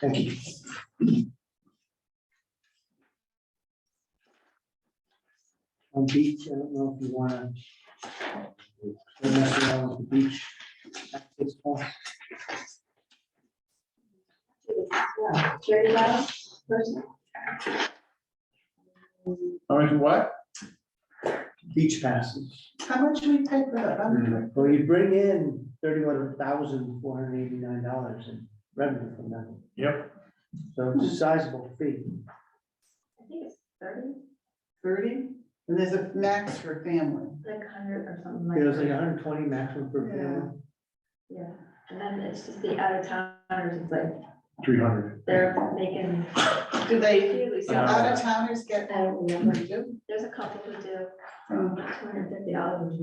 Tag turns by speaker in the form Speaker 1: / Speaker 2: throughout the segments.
Speaker 1: Thank you. On beach, I don't know if you wanna. Don't mess around with the beach. access point.
Speaker 2: Yeah, Jerry Lyle, person.
Speaker 3: How much, what?
Speaker 1: Beach passes. Mm-hmm.
Speaker 3: How much do we pay for that? I'm-
Speaker 1: Well, you bring in thirty-one thousand four hundred eighty-nine dollars in revenue from that.
Speaker 3: Yep,
Speaker 1: So it's a sizable fee.
Speaker 2: I think it's thirty,
Speaker 4: Thirty, and there's a max for family.
Speaker 2: like hundred or something
Speaker 1: It was
Speaker 2: like
Speaker 1: like
Speaker 2: that.
Speaker 1: hundred and twenty maximum per family.
Speaker 2: Yeah, and then it's just the out of towners, it's like,
Speaker 3: three hundred.
Speaker 2: they're making.
Speaker 4: Do they, uh, do out
Speaker 2: There's
Speaker 4: of towners get that number too?
Speaker 2: a couple who do,
Speaker 5: Oh.
Speaker 2: two hundred fifty dollars.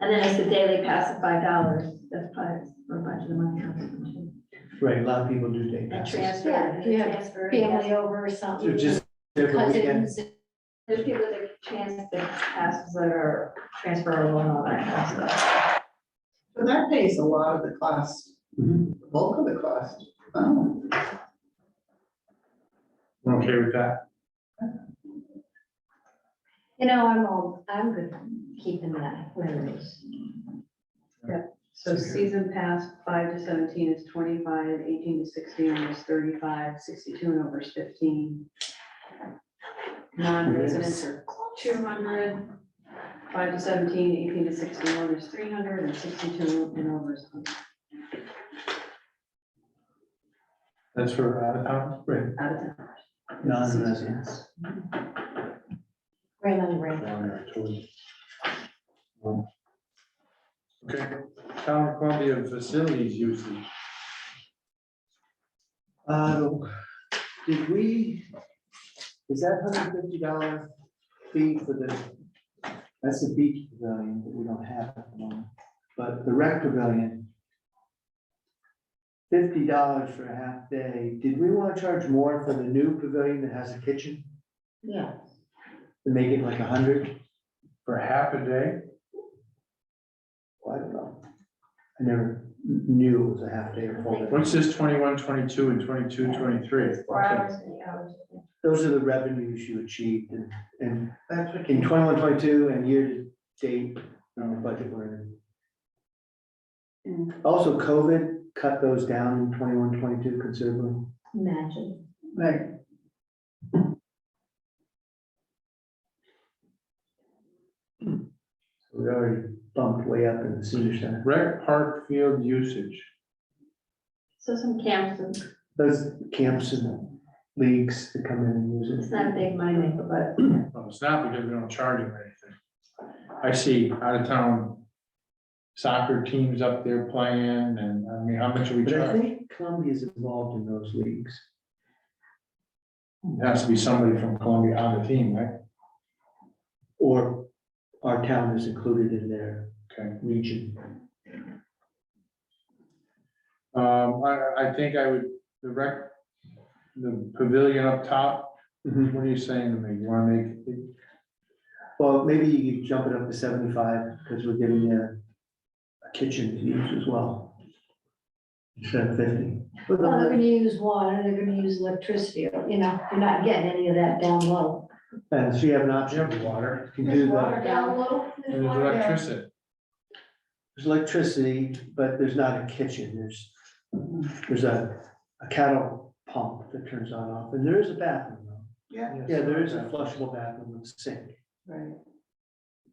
Speaker 2: And then it's the daily pass of five dollars, that's probably where a bunch of the money comes from.
Speaker 1: Right, a lot of people do day
Speaker 2: And
Speaker 1: passes.
Speaker 2: transfer,
Speaker 5: Yeah,
Speaker 2: and
Speaker 5: you have
Speaker 2: transfer.
Speaker 5: family over or
Speaker 1: So
Speaker 5: something.
Speaker 1: just every weekend.
Speaker 5: cousins,
Speaker 2: There's people that chance that passes that are transferable and all that kind of stuff.
Speaker 4: So that pays a lot of the cost,
Speaker 1: Mhm.
Speaker 4: the bulk of the cost. Oh,
Speaker 3: We're okay with that.
Speaker 5: You know, I'm all, I'm good keeping that where it is.
Speaker 6: So season pass, five to seventeen is twenty-five, eighteen to sixteen is thirty-five, sixty-two and over is fifteen. Non-residents are two hundred, five to 17, 18 to sixty-one is three hundred, and sixty-two and over is hundred.
Speaker 3: That's for out of town.
Speaker 1: uh, Right,
Speaker 6: Out of town.
Speaker 1: non-residents.
Speaker 5: Right on the right.
Speaker 3: Down there, totally. Um, Okay, town of Columbia facilities usage.
Speaker 1: Uh, did we, is that hundred fifty dollar fee for the, that's the beach pavilion that we don't have at the moment, but the rec pavilion. Fifty dollars for a half day. Did we want to charge more for the new pavilion that has a kitchen?
Speaker 5: Yeah.
Speaker 1: To make it like a hundred?
Speaker 3: For half a day,
Speaker 1: Well, I don't know. I never knew it was a half day or full day.
Speaker 3: what's this twenty-one, twenty-two and twenty-two, twenty-three?
Speaker 2: Four hours, eight hours.
Speaker 1: Those are the revenues you achieved in, in
Speaker 4: that's what
Speaker 1: in twenty-one, twenty-two and year-to-date, on the budget we're in.
Speaker 4: came.
Speaker 2: Mm.
Speaker 1: Also, COVID cut those down in 21, 22 considerably.
Speaker 5: Imagine.
Speaker 4: Right.
Speaker 1: So We already bumped way up in the senior center.
Speaker 3: Rec park field usage.
Speaker 2: So some camps, and
Speaker 1: Those camps and leagues that come in and use
Speaker 2: it's
Speaker 1: it.
Speaker 2: not a big money maker, but
Speaker 3: Well, it's not because we don't charge them anything. I see out of town soccer teams up there playing and, I mean, how much are we
Speaker 1: But I
Speaker 3: charging?
Speaker 1: think Columbia's involved in those leagues.
Speaker 3: It Has to be somebody from Columbia on the team, right?
Speaker 1: Or our town is included in their
Speaker 3: Okay.
Speaker 1: region.
Speaker 3: Um, I, I think I would, the rec, the pavilion up top, what are you saying to me? You wanna make,
Speaker 1: Well, maybe you could jump it up to seventy-five because we're giving you a kitchen to use as well. Instead of fifty.
Speaker 5: Well, they're gonna use water, they're gonna use electricity, you know, you're not getting any of that down low.
Speaker 1: And so you have an option.
Speaker 3: Jim, water,
Speaker 1: You can do the,
Speaker 2: water. Down
Speaker 5: low?
Speaker 3: and there's electricity.
Speaker 1: there's electricity, but there's not a kitchen. There's, there's a, a cattle pump that turns on and off. And there is a bathroom though.
Speaker 4: Yeah,
Speaker 1: Yeah, there is a flushable bathroom with a sink.
Speaker 4: right.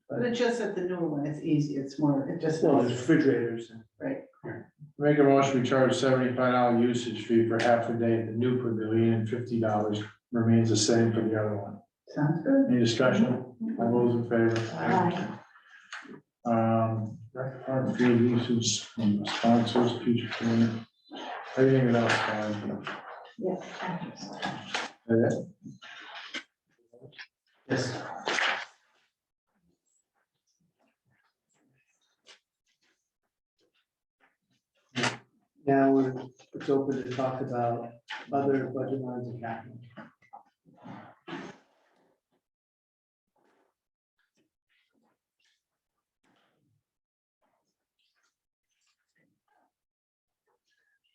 Speaker 4: But it's just at the newer one, it's easy, it's more, it just.
Speaker 1: Well, there's refrigerators and
Speaker 3: Make a motion, we charge seventy-five dollar usage fee for half a day at the new pavilion and fifty dollars remains the same for the other one.
Speaker 4: Sounds good.
Speaker 3: Any discussion? All those in favor?
Speaker 5: Aye.
Speaker 3: Um, rec park field uses, and sponsors, future community. Everything else, fine. Uh,
Speaker 5: Yes.
Speaker 3: That's it.
Speaker 1: Yes. Now, we're, it's open to talk about other budget lines and capital.